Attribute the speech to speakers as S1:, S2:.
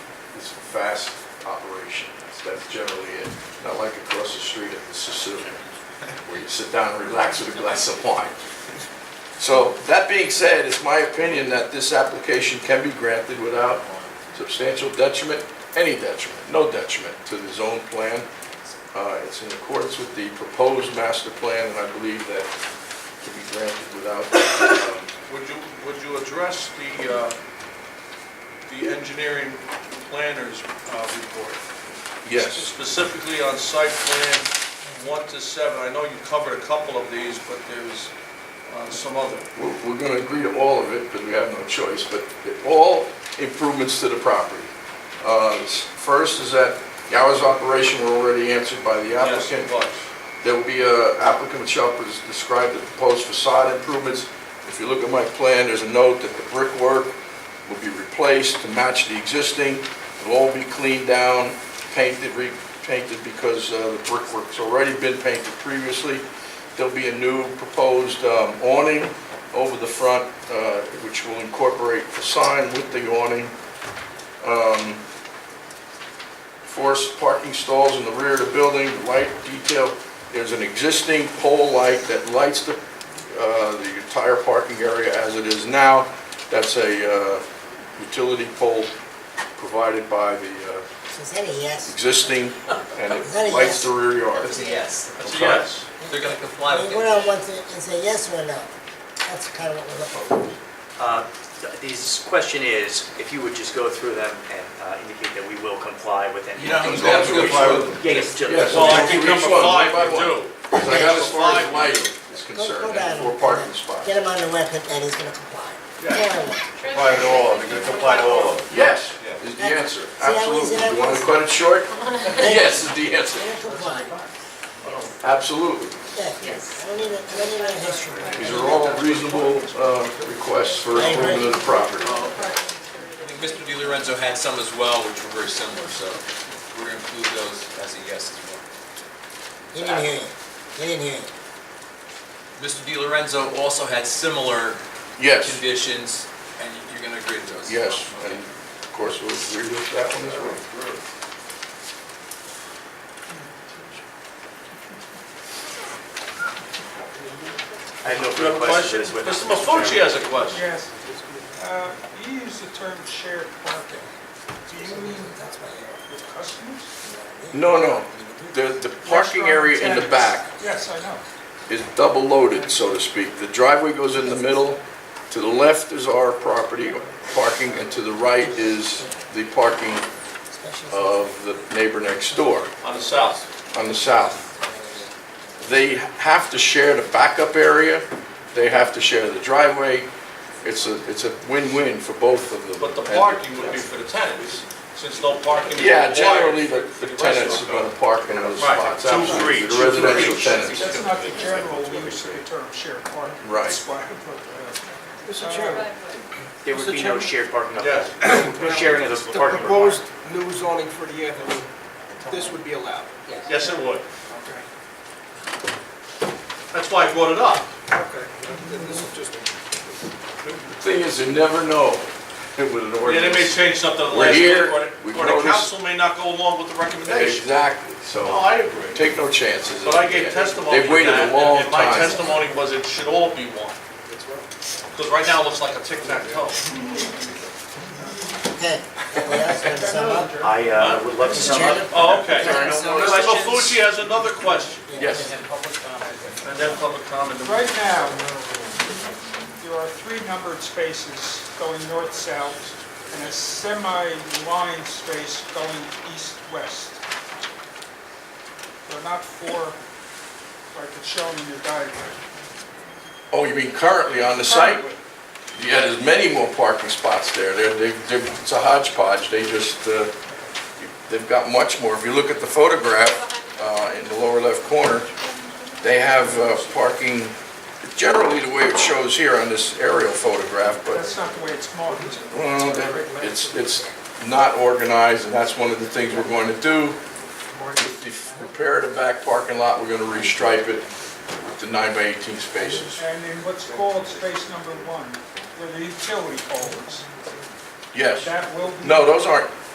S1: It's a fast operation. That's- That's generally it. Not like across the street at the Sassoon, where you sit down and relax with a glass of wine. So that being said, it's my opinion that this application can be granted without substantial detriment, any detriment, no detriment to the zone plan. Uh, It's in accordance with the proposed master plan, and I believe that it can be granted without, um,
S2: Would you, would you address the, uh, the engineering planner's uh, report?
S1: yes,
S2: Specifically on site plan one to seven, I know you covered a couple of these, but there's uh, some other.
S1: we're we're going to agree to all of it because we have no choice, but all improvements to the property. Uh, First is that the hours of operation were already answered by the applicant.
S2: Yes, it was.
S1: There will be a applicant shall pres- describe the proposed facade improvements. If you look at my plan, there's a note that the brickwork will be replaced to match the existing. It'll all be cleaned down, painted, repainted because uh, the brickwork's already been painted previously. There'll be a new proposed um, awning over the front, uh, which will incorporate the sign with the awning. Um, Forced parking stalls in the rear of the building, light detail. There's an existing pole light that lights the, uh, the entire parking area as it is now. That's a, uh, utility pole provided by the, uh,
S3: Is that a yes?
S1: existing, and it lights the rear yard.
S4: It's a yes.
S2: That's a
S1: Okay.
S2: yes.
S4: They're gonna
S3: I
S4: comply
S3: mean,
S4: with
S3: What
S4: it.
S3: I want to, is a yes or no? That's kind of what we're looking for.
S5: Uh, th- This question is, if you would just go through them and uh, indicate that we will comply with any.
S2: You know,
S1: I'm
S2: that's
S1: going to
S2: good.
S1: comply with them.
S5: Yeah, yes, just-
S1: Yes.
S2: Well, I think number five, we do.
S1: Because I got as far as lighting is
S3: Go- go
S1: concerned,
S3: down
S1: and four
S3: and-
S1: parking spots.
S3: Get him on the record that he's gonna comply.
S2: Yeah.
S3: There we go.
S6: Comply to all, they're gonna comply to all of them.
S1: Yes, is the answer,
S3: how easy
S1: absolutely.
S3: that
S1: You want
S3: was?
S1: to cut it short? Yes is the answer,
S3: They're gonna comply.
S1: absolutely.
S3: Yeah. I don't need a, I don't need a history.
S1: These are all reasonable uh, requests for improvement of the property.
S4: I think Mr. Di Lorenzo had some as well, which were very similar, so we're gonna include those as a yes as well.
S3: He didn't hear you. He didn't hear you.
S4: Mr. Di Lorenzo also had similar
S1: Yes,
S4: conditions, and you- you're gonna agree to those? as well?
S1: yes, and
S4: Okay.
S1: of course, we'll agree with that one as well.
S5: I have no
S2: You have a
S5: further
S2: question?
S5: questions. with
S2: Mr. Mafucci has a question.
S7: Yes. Uh, You use the term shared parking. Do you mean
S3: That's why you're-
S7: with customers?
S1: No, no, the, the parking area in the back
S7: Yes, I know.
S1: is double loaded, so to speak. The driveway goes in the middle, to the left is our property parking, and to the right is the parking
S3: Especially
S1: of the neighbor next door
S2: On the south.
S1: on the south. They have to share the backup area, they have to share the driveway. It's a, it's a win-win for both of them.
S2: But the parking would be for the tenants, since no parking is
S1: Yeah,
S2: required.
S1: generally, the
S2: for
S1: the
S2: the
S1: tenants are
S2: restaurant.
S1: gonna park in those
S2: Right,
S1: spots.
S2: two for
S1: absolutely.
S2: each,
S1: The
S2: two for
S1: residential
S2: each.
S1: tenants.
S7: That's not the general use of the term shared parking.
S1: Right.
S7: That's why I put that.
S8: Mr.
S7: Uh,
S8: Chairman,
S5: There would be no shared parking of,
S2: Yes.
S5: no sharing of the
S8: the
S5: parking requirement.
S8: proposed new zoning for the avenue, this would be allowed.
S2: Yes, it would.
S8: Okay.
S2: That's why I brought it up.
S8: Okay, Then this is just,
S1: Thing is, you never know with an
S2: Yeah, they may
S1: ordinance.
S2: change something at the
S1: We're
S2: last minute,
S1: here,
S2: or
S1: we've
S2: the- or the
S1: noticed-
S2: council may not go along with the recommendation.
S1: Exactly,
S2: No,
S1: so
S2: I agree.
S1: take no chances.
S2: But I gave testimony
S1: They've
S2: to
S1: waited
S2: that,
S1: a long
S2: and my
S1: time.
S2: testimony was it should all be one. Because right now it looks like a tic-tac-toe.
S3: Okay. Anybody else want to sum up?
S5: I uh, would love to sum up.
S2: Oh, okay.
S3: There are no
S2: Mr.
S3: more
S2: Mafucci has another question,
S1: Yes,
S2: and then public comment.
S7: Right now, there are three numbered spaces going north-south and a semi-line space going east-west. They're not four, like it's shown in your diagram.
S1: oh, you mean currently on the site?
S7: Currently,
S1: Yeah, there's many more parking spots there. They're, they're- they're, it's a hodgepodge, they just, uh, they've got much more. If you look at the photograph, uh, in the lower left corner, they have uh, parking, generally the way it shows here on this aerial photograph, but
S7: That's not the way it's marked.
S1: Well, that- it's, it's not organized, and that's one of the things we're going to do. If we Repair the back parking lot, we're gonna restripe it to nine by eighteen spaces.
S7: And in what's called space number one, where the utility pole is,
S1: Yes.
S7: that will be...
S1: No, those aren't,